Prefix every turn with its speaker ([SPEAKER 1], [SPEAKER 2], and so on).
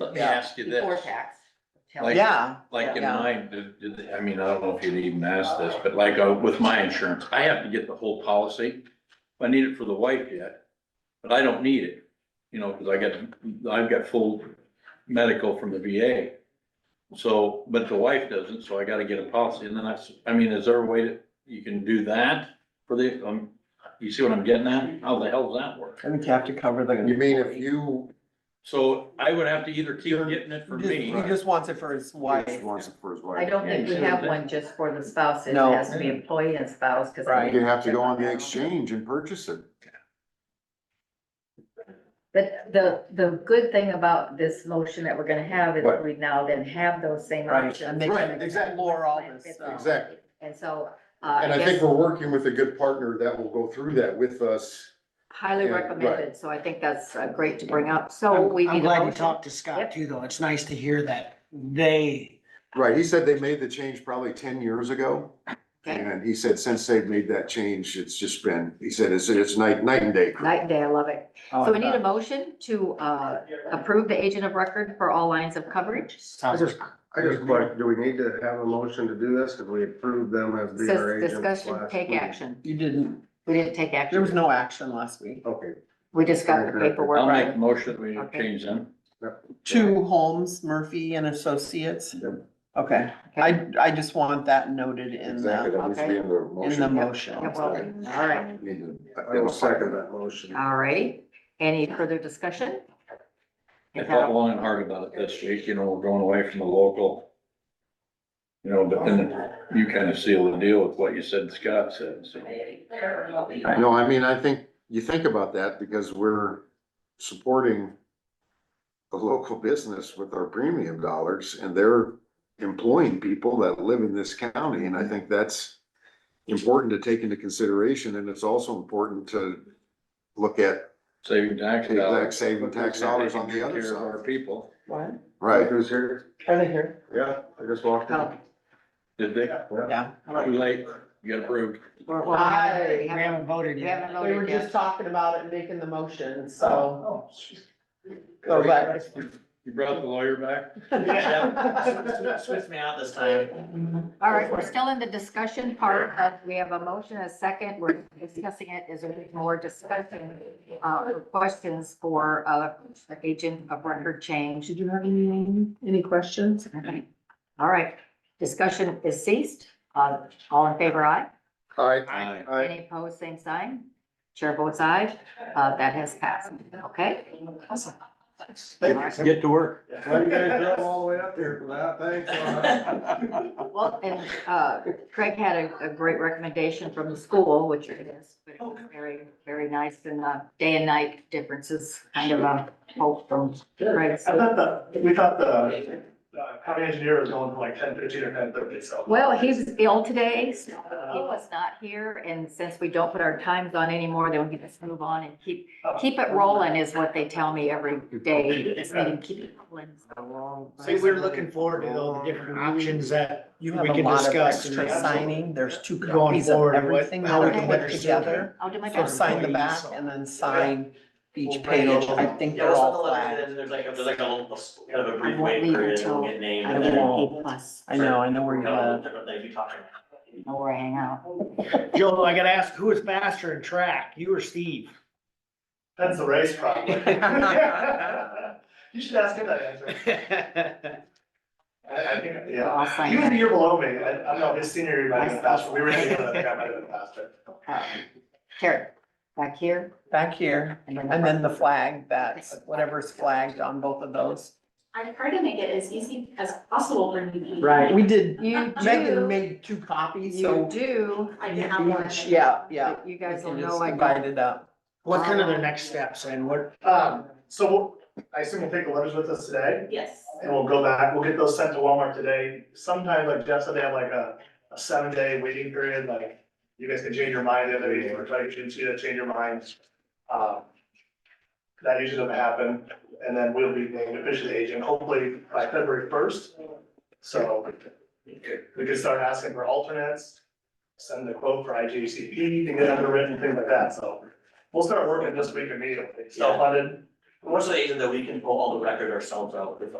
[SPEAKER 1] let me ask you
[SPEAKER 2] before
[SPEAKER 1] this,
[SPEAKER 2] tax.
[SPEAKER 1] Like-
[SPEAKER 3] Yeah,
[SPEAKER 1] like in
[SPEAKER 3] Yeah.
[SPEAKER 1] mine, did- did- I mean, I don't know if you'd even ask this, but like uh, with my insurance, I have to get the whole policy. I need it for the wife yet, but I don't need it, you know, because I got, I've got full medical from the VA. So, but the wife doesn't, so I gotta get a policy, and then I, s- I mean, is there a way that you can do that for the, um, you see what I'm getting at? How the hell does that work?
[SPEAKER 3] I think you have to cover the.
[SPEAKER 4] You mean if you,
[SPEAKER 1] So I would have to either keep getting it for me.
[SPEAKER 3] He just wants it for his
[SPEAKER 4] he
[SPEAKER 3] wife.
[SPEAKER 4] wants it for his
[SPEAKER 2] I
[SPEAKER 4] wife,
[SPEAKER 2] don't think we have one just for the spouse. It
[SPEAKER 3] No.
[SPEAKER 2] has to be employee and spouse, because.
[SPEAKER 3] Right.
[SPEAKER 4] you have to go on the exchange and purchase it.
[SPEAKER 2] But the, the good thing about this motion that we're gonna have is
[SPEAKER 4] Right.
[SPEAKER 2] we now then have those same
[SPEAKER 3] Right,
[SPEAKER 2] options.
[SPEAKER 3] and they
[SPEAKER 4] can Right, exactly.
[SPEAKER 3] explore all this stuff.
[SPEAKER 4] Exactly.
[SPEAKER 2] And so, uh,
[SPEAKER 4] And
[SPEAKER 2] I
[SPEAKER 4] I think
[SPEAKER 2] guess
[SPEAKER 4] we're working with a good partner that will go through that with us.
[SPEAKER 2] highly
[SPEAKER 4] yeah, right.
[SPEAKER 2] recommended, so I think that's uh, great to bring up. So
[SPEAKER 5] I'm
[SPEAKER 2] Oh, we
[SPEAKER 5] I'm
[SPEAKER 2] need a
[SPEAKER 5] glad you
[SPEAKER 2] motion.
[SPEAKER 5] talked to
[SPEAKER 2] Yep.
[SPEAKER 5] Scott too, though. It's nice to hear that they,
[SPEAKER 4] Right, he said they made the change probably ten years ago.
[SPEAKER 2] Okay.
[SPEAKER 4] And he said since they've made that change, it's just been, he said it's, it's night, night and day.
[SPEAKER 2] Night and day, I love it.
[SPEAKER 3] Oh,
[SPEAKER 2] So we need a
[SPEAKER 3] God.
[SPEAKER 2] motion to, uh, approve the agent of record for all lines of coverage.
[SPEAKER 5] sounds
[SPEAKER 6] just- I just question, do we need to have a motion to do this? Cause we approved them as being our
[SPEAKER 2] Says
[SPEAKER 6] agents
[SPEAKER 2] discussion,
[SPEAKER 6] last
[SPEAKER 2] take
[SPEAKER 6] week.
[SPEAKER 2] action.
[SPEAKER 3] You didn't,
[SPEAKER 2] We didn't take action.
[SPEAKER 3] there was no action last week.
[SPEAKER 4] Oh,
[SPEAKER 6] Okay,
[SPEAKER 2] We just got the paperwork.
[SPEAKER 1] I'll
[SPEAKER 2] right.
[SPEAKER 1] make a motion, that we
[SPEAKER 2] Okay.
[SPEAKER 1] change them.
[SPEAKER 3] Two Holmes, Murphy and Associates.
[SPEAKER 4] Yep.
[SPEAKER 3] Okay, I, I just want that noted in
[SPEAKER 4] Exactly,
[SPEAKER 3] the,
[SPEAKER 4] that needs to be in the
[SPEAKER 3] in the
[SPEAKER 4] motion.
[SPEAKER 3] motion.
[SPEAKER 2] Yep, well, All right,
[SPEAKER 4] Need to-
[SPEAKER 6] I will second that motion.
[SPEAKER 2] all right. Any further discussion?
[SPEAKER 1] I thought long and hard about it this week, you know, we're going away from the local. You know, but then you kind of seal the deal with what you said Scott said, so.
[SPEAKER 4] No, I mean, I think, you think about that because we're supporting a local business with our premium dollars and they're employing people that live in this county. And I think that's important to take into consideration. And it's also important to look at,
[SPEAKER 1] Saving tax
[SPEAKER 4] Exact
[SPEAKER 1] dollars.
[SPEAKER 4] saving tax dollars on the other
[SPEAKER 1] Taking care of Our
[SPEAKER 4] side.
[SPEAKER 1] people,
[SPEAKER 3] What?
[SPEAKER 4] Right.
[SPEAKER 6] Who's here?
[SPEAKER 3] Are they here?
[SPEAKER 6] Yeah, I just walked in.
[SPEAKER 2] Oh.
[SPEAKER 1] did they?
[SPEAKER 5] Oh,
[SPEAKER 3] Yeah.
[SPEAKER 1] Too late, you got approved.
[SPEAKER 2] Oh, We're- well, we haven't- we
[SPEAKER 5] we
[SPEAKER 2] haven't-
[SPEAKER 5] haven't voted
[SPEAKER 2] We
[SPEAKER 5] yet.
[SPEAKER 2] haven't
[SPEAKER 3] We were
[SPEAKER 2] voted
[SPEAKER 3] just
[SPEAKER 2] yet.
[SPEAKER 3] talking about it, making the motion, so. So that-
[SPEAKER 1] You brought the lawyer back?
[SPEAKER 5] Switch me out this time.
[SPEAKER 2] All right, we're still in the discussion part. of- We have a motion, a second. We're discussing it. Is there any more discussion? Uh, or questions for, uh, the agent of record change?
[SPEAKER 3] Did you have any, any questions?
[SPEAKER 2] All right, discussion is ceased. Uh, all in favor, aye?
[SPEAKER 4] Aye.
[SPEAKER 1] Aye.
[SPEAKER 4] Aye.
[SPEAKER 2] Any opposed, same sign? Chair votes aye. Uh, that has passed, okay?
[SPEAKER 1] Get to work.
[SPEAKER 6] Why you guys drove all the way up there for that? Thanks.
[SPEAKER 2] Well, and, uh, Craig had a, a great recommendation from the school, which it is, but it was very, very nice and, uh, day and night differences, kind of a hope from Craig.
[SPEAKER 7] I thought the, we thought the uh, county engineer was going from like ten fifteen or ten thirty, so. Uh,
[SPEAKER 2] Well, he's ill today, so he was not here, and since we don't put our times on anymore, then we can just move on and keep, keep it rolling is what they tell me every day, this meeting, keep it rolling.
[SPEAKER 5] See, we're looking forward to all the different options that
[SPEAKER 3] You
[SPEAKER 5] we
[SPEAKER 3] have a
[SPEAKER 5] can
[SPEAKER 3] lot of
[SPEAKER 5] discuss. and
[SPEAKER 3] extra
[SPEAKER 5] that's
[SPEAKER 3] signing, there's two
[SPEAKER 5] Going
[SPEAKER 3] copies of
[SPEAKER 5] forward and what-
[SPEAKER 3] everything that
[SPEAKER 5] how
[SPEAKER 2] we
[SPEAKER 3] we
[SPEAKER 2] can
[SPEAKER 3] can put
[SPEAKER 5] better serve
[SPEAKER 3] together.
[SPEAKER 2] I'll do Oh my
[SPEAKER 3] So
[SPEAKER 2] best.
[SPEAKER 3] sign the back and then sign each page, I think they're all flagged.
[SPEAKER 8] There's like, there's like a little, kind of a
[SPEAKER 2] I
[SPEAKER 8] brief
[SPEAKER 2] won't
[SPEAKER 8] wait
[SPEAKER 2] leave
[SPEAKER 8] period,
[SPEAKER 2] until
[SPEAKER 8] we'll get named.
[SPEAKER 2] I
[SPEAKER 8] and
[SPEAKER 2] get an
[SPEAKER 8] then
[SPEAKER 2] A plus,
[SPEAKER 3] I know, I know where
[SPEAKER 8] we'll
[SPEAKER 3] you're
[SPEAKER 8] kind of
[SPEAKER 3] at.
[SPEAKER 8] different things we talk about.
[SPEAKER 2] know where I hang out.
[SPEAKER 5] all. Joe, I gotta ask, who was faster in track, you or Steve?
[SPEAKER 7] That's the race probably. You should ask him that answer. I, I think,
[SPEAKER 2] So I'll
[SPEAKER 7] yeah.
[SPEAKER 2] sign
[SPEAKER 7] He was a
[SPEAKER 2] that.
[SPEAKER 7] year below me. I, I don't know, his senior year might have been faster. We were together, I think I might have been faster.
[SPEAKER 2] Uh, Here, back here,
[SPEAKER 3] Back here,
[SPEAKER 2] and then.
[SPEAKER 3] and then the flag, that's whatever's flagged on both of those.
[SPEAKER 9] I try to make it as easy as possible for you.
[SPEAKER 3] We did,
[SPEAKER 2] You
[SPEAKER 3] Megan
[SPEAKER 2] do,
[SPEAKER 3] made two copies,
[SPEAKER 2] you
[SPEAKER 3] so
[SPEAKER 2] do.
[SPEAKER 9] I
[SPEAKER 3] you
[SPEAKER 9] can have one.
[SPEAKER 3] each, yeah, yeah.
[SPEAKER 2] You guys will
[SPEAKER 3] You can
[SPEAKER 2] know
[SPEAKER 3] just
[SPEAKER 2] I
[SPEAKER 3] divide
[SPEAKER 2] got.
[SPEAKER 3] it up.
[SPEAKER 5] What kind of their next steps and what,
[SPEAKER 7] Um, so we'll- I assume we'll take the letters with us today
[SPEAKER 9] Yes.
[SPEAKER 7] and we'll go back, we'll get those sent to Walmart today. Sometimes like Jeff said, they have like a, a seven day waiting period, like you guys can change your mind the other day, or try to change, you know, change your minds. Um, That usually doesn't happen, and then we'll be named official agent hopefully by February first. So we can start asking for alternates, send the quote for IGCP, and get underwritten, things like that, so. We'll start working this week immediately, self-funded,
[SPEAKER 8] Most of the agent that we can pull all the record ourselves out, if